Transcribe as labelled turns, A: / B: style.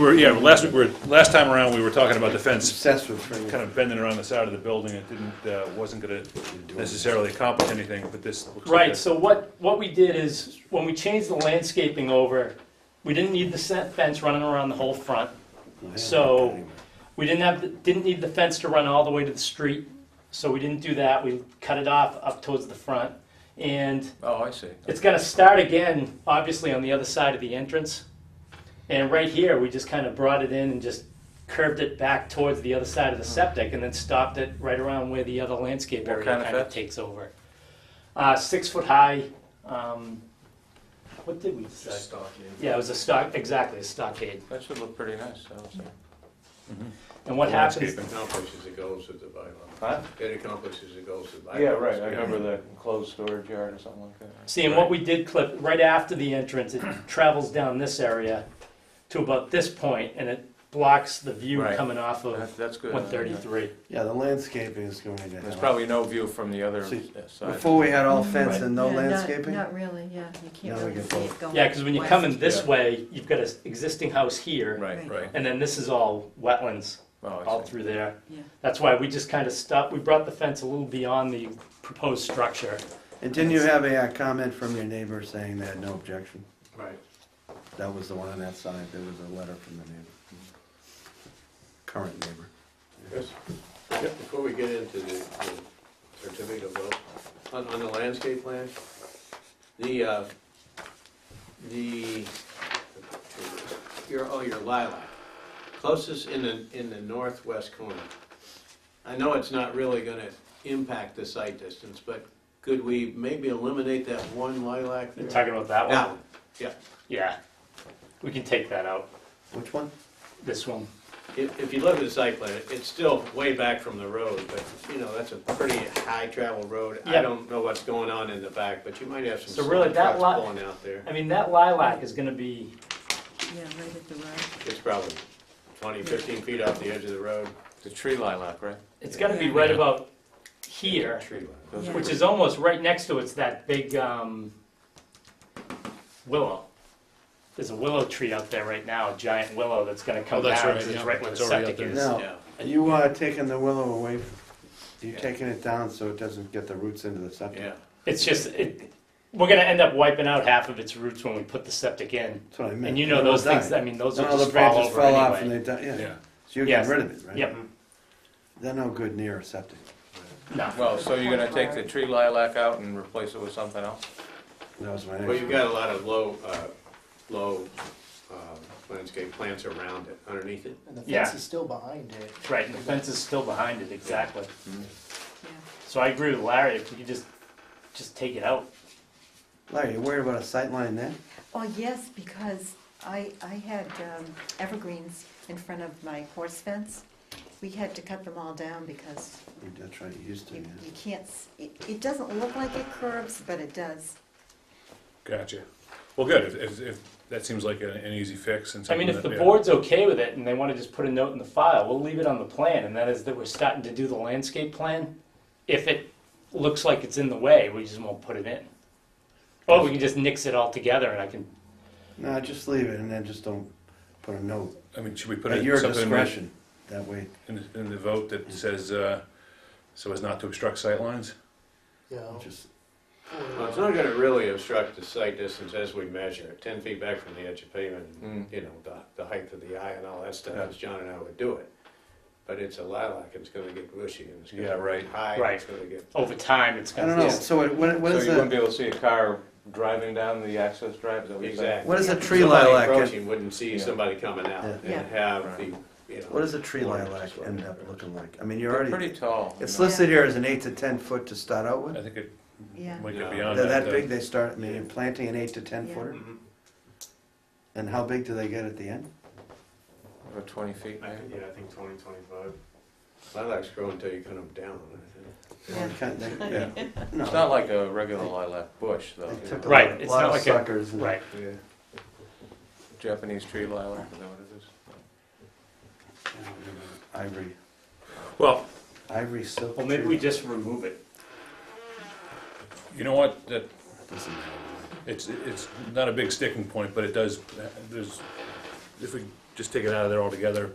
A: We're, yeah, last, we're, last time around, we were talking about the fence
B: That's what for you.
A: kind of bending around the side of the building. It didn't, uh, wasn't gonna necessarily accomplish anything, but this looks like
C: Right,
A: a-
C: so what, what we did is, when we changed the landscaping over, we didn't need the set fence running around the whole front. So, we didn't have, the- didn't need the fence to run all the way to the street, so we didn't do that, we cut it off up towards the front. And
D: Oh, I see.
C: it's gonna start again, obviously, on the other side of the entrance. And right here, we just kind of brought it in and just curved it back towards the other side of the septic and then stopped it right around where the other landscape
D: What
C: area
D: kind of
C: kind of
D: fence?
C: takes over. Uh, six foot high, um, what did we decide? Yeah, it was a stock, exactly, a stockade.
D: That should look pretty nice, I would say.
C: And what happens,
E: It accomplishes the goals of the bylaw.
D: Huh?
E: It accomplishes the goals of the bylaw.
D: Yeah, right, I remember the enclosed storage yard or something like that.
C: See, and what we did clip, right after the entrance, it travels down this area to about this point and it blocks the view
D: Right.
C: coming off of
D: That- That's good.
C: one thirty-three.
B: Yeah, the landscaping is going to
D: There's
B: help.
D: probably no view from the other
B: See,
D: side.
B: Before we had all
F: Mm-hmm.
B: fence
C: Right.
B: and no
F: Yeah, not-
B: landscaping?
F: Not really, yeah, you
B: Now
F: can't
B: we
F: really
B: get
F: see
B: both.
F: it going.
C: Yeah, because when you
F: west.
C: come in this
D: Yeah.
C: way, you've got an existing house here,
D: Right,
F: Right.
D: right.
C: and then this is all wetlands
D: Oh,
C: all
D: I see.
C: through there.
F: Yeah.
C: That's why we just kind of stopped, we brought the fence a little beyond the proposed structure.
B: And didn't you have a uh, comment from your neighbor saying they had no objection?
E: Right.
B: That was the one on that side, there was a letter from the neighbor. Current neighbor.
E: Chris, Before we get into the the certificate of vote, on, on the landscape plan, the, uh, the, your, oh, your lilac, closest in the, in the northwest corner. I know it's not really gonna impact the site distance, but could we maybe eliminate that one lilac
C: You're
E: there?
C: talking about that
E: That
C: one?
E: one, yeah.
C: Yeah. We can take that out,
B: Which one?
C: this one.
E: If, if you look at the site plan, it's still way back from the road, but, you know, that's a pretty high travel road. I
C: Yeah.
E: don't know what's going on in the back, but you might have
C: So
E: some
C: really,
E: semi
C: that
E: trucks
C: lot-
E: pulling out there.
C: I mean, that lilac is gonna be,
F: Yeah, right at the road.
E: It's probably 20, 15 feet off the edge of the road.
D: The tree lilac, right?
C: it's gonna be right about here,
E: Tree line.
D: Those
F: Yeah.
D: were-
C: which is almost right next to it's that big, um, willow. There's a willow tree out there right now, a giant willow that's gonna
G: Oh,
C: come
G: that's
C: down,
G: right,
C: 'cause it's
G: yeah,
C: right where the
G: it's already out
C: septic is.
G: there.
B: Now,
E: Yeah.
B: you are taking the willow away, you're
E: Yeah.
B: taking it down so it doesn't get the roots into the septic.
E: Yeah,
C: It's just, it, we're gonna end up wiping out half of its roots when we put the septic in.
B: That's what I meant.
C: And you know
B: It will
C: those things,
B: die.
C: I mean, those
B: Then
C: will
B: all the
C: just fall
B: branches
C: over
B: fell off and
C: anyway.
B: they died, yeah.
G: Yeah.
B: So you're getting
C: Yes.
B: rid of it, right?
C: Yep,
B: They're no good near a septic.
C: no,
D: Well, so you're gonna take the tree lilac out and replace it with something else?
B: That was my
E: well,
B: next.
E: you've got a lot of low, uh, low uh, landscape plants around it, underneath it.
H: And the
C: Yeah.
H: fence is still behind it.
C: right, and the fence is still behind it, exactly.
F: Yeah.
C: So I agree with Larry, if we could just, just take it out.
B: Larry, you worried about a sight line there?
F: Oh, yes, because I, I had um, evergreens in front of my horse fence. We had to cut them all down because
B: You- That's right, you used to,
F: you,
B: yeah.
F: you can't, s- it, it doesn't look like it curves, but it does.
A: Gotcha. Well, good, if, if, if that seems like an, an easy fix and
C: I
A: something
C: mean, if
A: that-
C: the
A: yeah.
C: board's okay with it and they wanna just put a note in the file, we'll leave it on the plan, and that is that we're starting to do the landscape plan. If it looks like it's in the way, we just won't put it in. Or we can just nix it altogether and I can,
B: No, just leave it and then just don't put a note.
A: I mean, should we put
B: At
A: in
B: your
A: something in the-
B: discretion, that way.
A: in, the- in the vote that says, uh, so as not to obstruct sightlines?
H: You know,
B: Just,
E: Well, it's not gonna really obstruct the site distance as we measure it, ten feet back from the edge of pavement,
D: Mm.
E: you know, the, the height of the eye and all that stuff,
A: Yeah.
E: as John and I would do it. But it's a lilac, and it's gonna get bushy, and it's
A: Yeah,
E: gonna
A: right.
E: get high, and
C: Right.
E: it's gonna get.
C: over time, it's
B: I
C: gonna.
B: don't know, so it- what, what
D: So
B: is
D: you wouldn't
B: a,
D: be able to see a car driving down the access drive, is that what you're saying?
E: Exactly.
B: what is a tree
E: Somebody
B: lilac, end-
E: Approaching wouldn't see
D: Yeah.
E: somebody coming out
B: Yeah.
E: and
F: Yeah.
E: have the, you know.
B: what does a tree
E: orange
B: lilac
E: is what
B: end
E: it
B: up
E: is.
B: looking like? I mean, you're
D: They're
B: already,
D: pretty tall. you
B: it's
D: know.
B: listed here as an eight to ten foot to start out
A: I
B: with.
A: think it
B: Mm-hmm.
F: Yeah.
A: might get
E: No.
A: beyond
B: They're
A: that.
B: that
A: uh,
B: big, they start, I mean, you're planting an eight to ten
F: Yeah.
B: footer,
E: Mhm.
B: and how big do they get at the end?
D: About twenty feet, maybe?
E: yeah, I think twenty, twenty-five. Lilacs grow until you cut them down, I think.
F: Yeah.
B: They kind- they-
A: Yeah.
B: No.
D: It's not like a regular lilac bush, though.
B: They took a
C: Right,
B: lot-
C: it's
B: lot
C: not
B: of
C: like a-
B: suckers and-
C: Right,
E: Yeah.
D: Japanese tree lilac, is that what it is?
B: Ivory,
A: Well,
B: ivory silk.
C: well, maybe we just remove it.
A: you know what, that,
B: Doesn't matter.
A: it's, it's not a big sticking point, but it does, there's, if we just just take it out of there altogether.